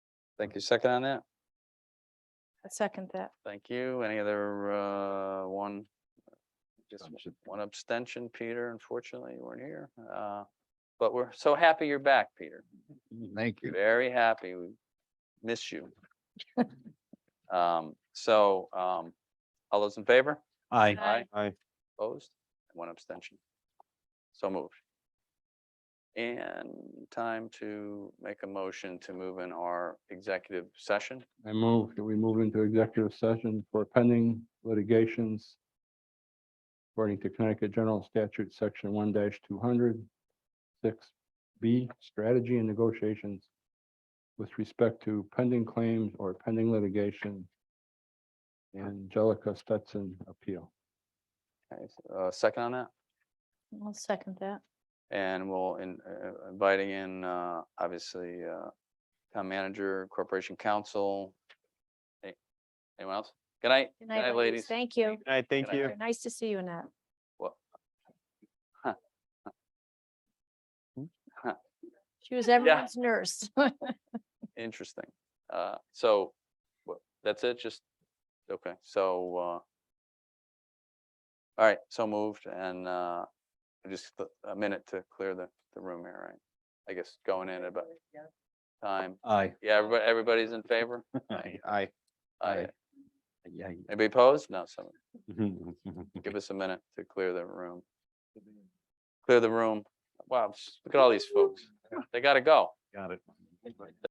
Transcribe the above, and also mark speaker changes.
Speaker 1: Thank you. Second on that?
Speaker 2: I second that.
Speaker 1: Thank you. Any other, uh, one? Just one abstention, Peter. Unfortunately, you weren't here. Uh, but we're so happy you're back, Peter.
Speaker 3: Mm-hmm. Thank you.
Speaker 1: Very happy. We miss you. Um, so, um, all those in favor?
Speaker 3: Aye.
Speaker 1: Aye.
Speaker 3: Aye.
Speaker 1: Opposed? One abstention. So moved. And time to make a motion to move in our executive session.
Speaker 4: I move, that we move into executive session for pending litigations according to Connecticut General Statute, Section one 200 6 B, strategy and negotiations with respect to pending claims or pending litigation. Angelica Stetson appeal.
Speaker 1: Okay, Uh, second on that?
Speaker 2: I'll second that.
Speaker 1: And we'll in uh, inviting in, uh, obviously, uh, town manager, corporation counsel. Hey, Anyone else? Good night.
Speaker 2: Good night, ladies. Thank you.
Speaker 3: Aye, thank
Speaker 1: Good
Speaker 3: you.
Speaker 1: night.
Speaker 2: Nice to see you, Annette.
Speaker 1: Well-
Speaker 2: She was everyone's nurse.
Speaker 1: Interesting. Uh, so wha- that's it, just, okay, so, uh, all right, so moved and, uh, just th- a minute to clear the, the room here, right? I guess going in about time.
Speaker 3: Aye.
Speaker 1: Yeah, everybody, everybody's in favor?
Speaker 3: Aye. Aye.
Speaker 1: Aye.
Speaker 3: Aye. Aye.
Speaker 1: Anybody opposed? No, so
Speaker 3: Aye.
Speaker 1: give us a minute to clear the room. Clear the room. Wow, s- look at all these folks. They gotta go.
Speaker 3: Got it.